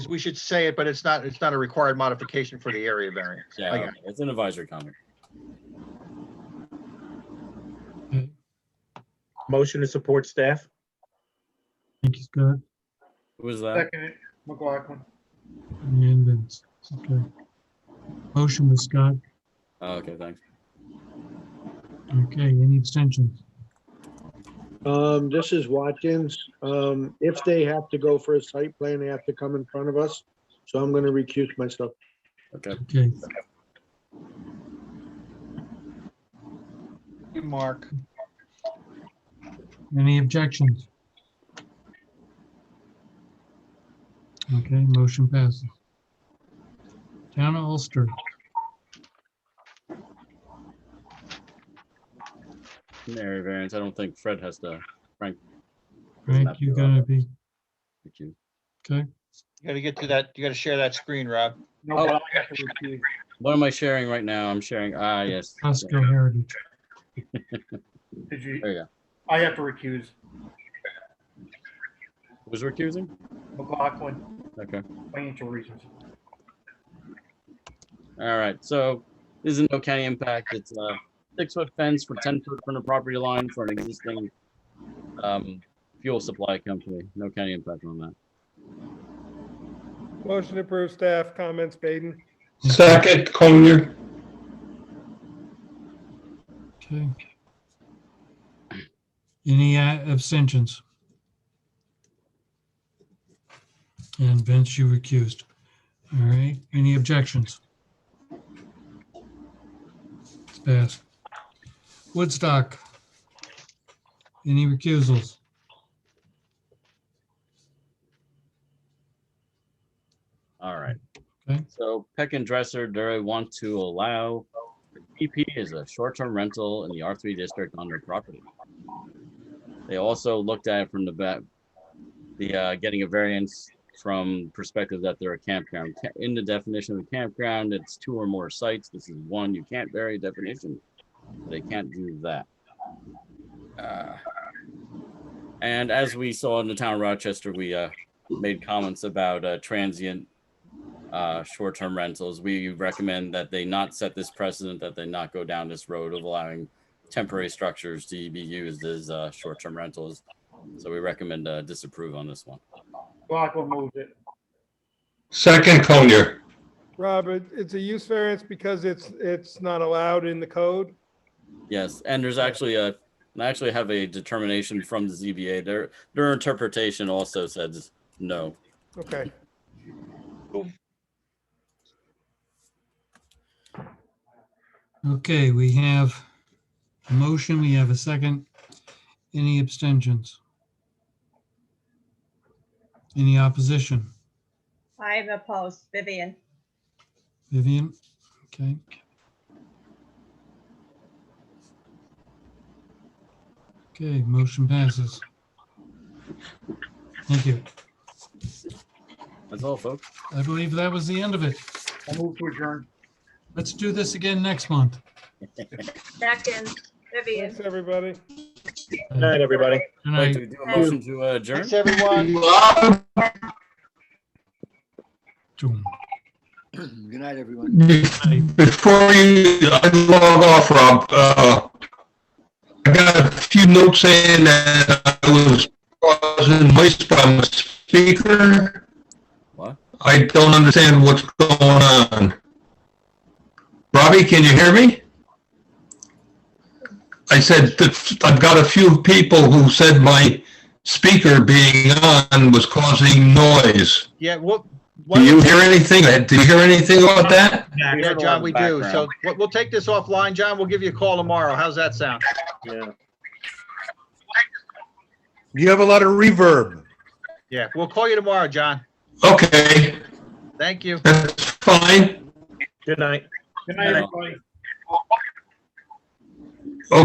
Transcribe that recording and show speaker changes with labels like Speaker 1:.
Speaker 1: we should say it, but it's not, it's not a required modification for the area variance. I
Speaker 2: Yeah,
Speaker 1: got it.
Speaker 2: it's an advisory comment.
Speaker 3: Motion to support staff?
Speaker 4: Thank you, Scott.
Speaker 2: Who was that?
Speaker 5: Second, McLaughlin.
Speaker 4: And then, okay. Motion with Scott.
Speaker 2: Oh, okay, thanks.
Speaker 4: Okay, any abstentions?
Speaker 5: Um, this is Watkins. Um, if they have to go for a site plan, they have to come in front of us. So I'm gonna recuse myself.
Speaker 2: Okay.
Speaker 4: Okay,
Speaker 1: Mark.
Speaker 4: any objections? Okay, motion passes. Town of Ulster,
Speaker 2: Area variance. I don't think Fred has to. Frank.
Speaker 4: Frank, you gonna be,
Speaker 2: Thank you.
Speaker 4: okay?
Speaker 1: You gotta get to that, you gotta share that screen, Rob.
Speaker 5: No,
Speaker 2: Oh.
Speaker 5: but I have to recuse.
Speaker 2: What am I sharing right now? I'm sharing. Ah, yes.
Speaker 4: Costco Heritage.
Speaker 5: Did you?
Speaker 2: There you go.
Speaker 5: I have to recuse
Speaker 2: Was recusing?
Speaker 5: McLaughlin,
Speaker 2: Okay.
Speaker 5: financial reasons.
Speaker 2: All right, so this is no county impact. It's a six-foot fence for ten foot from the property line for an existing um, fuel supply company. No county impact on that.
Speaker 6: Motion to approve staff comments, Baden.
Speaker 7: Second, Collier.
Speaker 4: Okay. Any uh, abstentions? And Vince, you recused. All right, any objections? It's passed. Woodstock. Any recusals?
Speaker 2: All right.
Speaker 4: Okay.
Speaker 2: So Peck and Dresser, they want to allow PP is a short-term rental in the R3 district on their property. They also looked at it from the back, the uh, getting a variance from perspective that they're a campground. Ca- In the definition of campground, it's two or more sites. This is one. You can't vary definition. They can't do that. Uh, And as we saw in the town of Rochester, we uh, made comments about uh, transient uh, short-term rentals. We recommend that they not set this precedent, that they not go down this road of allowing temporary structures to be used as uh, short-term rentals. So we recommend uh, disapprove on this one.
Speaker 5: McLaughlin moves it.
Speaker 7: Second, Collier.
Speaker 6: Rob, it- it's a use variance because it's, it's not allowed in the code.
Speaker 2: Yes, and there's actually a, I actually have a determination from the ZBA. Their their interpretation also says no.
Speaker 6: Okay.
Speaker 4: Okay, we have a motion, we have a second. Any abstentions? Any opposition?
Speaker 8: I'm opposed, Vivian.
Speaker 4: Vivian, okay. Okay, motion passes. Thank you.
Speaker 2: That's all, folks.
Speaker 4: I believe that was the end of it.
Speaker 5: I move to adjourn.
Speaker 4: Let's do this again next month.
Speaker 8: Second, Vivian.
Speaker 6: Thanks, everybody.
Speaker 4: Good
Speaker 3: Night, everybody.
Speaker 4: Good
Speaker 2: Like
Speaker 4: night.
Speaker 2: to do a motion to adjourn.
Speaker 1: Thanks, everyone.
Speaker 4: June.
Speaker 9: Good night, everyone.
Speaker 7: Before you log off, Rob, uh, I got a few notes saying that I was causing waste by my speaker.
Speaker 2: What?
Speaker 7: I don't understand what's going on. Robbie, can you hear me? I said, that I've got a few people who said my speaker being on was causing noise.
Speaker 1: Yeah, what?
Speaker 7: Do you hear anything? Do you hear anything about that?
Speaker 1: Yeah, John, we do. So
Speaker 2: Background.
Speaker 1: we'll, we'll take this offline. John, we'll give you a call tomorrow. How's that sound?
Speaker 10: You have a lot of reverb.
Speaker 1: Yeah, we'll call you tomorrow, John.
Speaker 7: Okay,
Speaker 1: Thank you.
Speaker 7: that's fine.
Speaker 3: Good night.
Speaker 5: Good night,
Speaker 2: Yeah.
Speaker 5: everybody.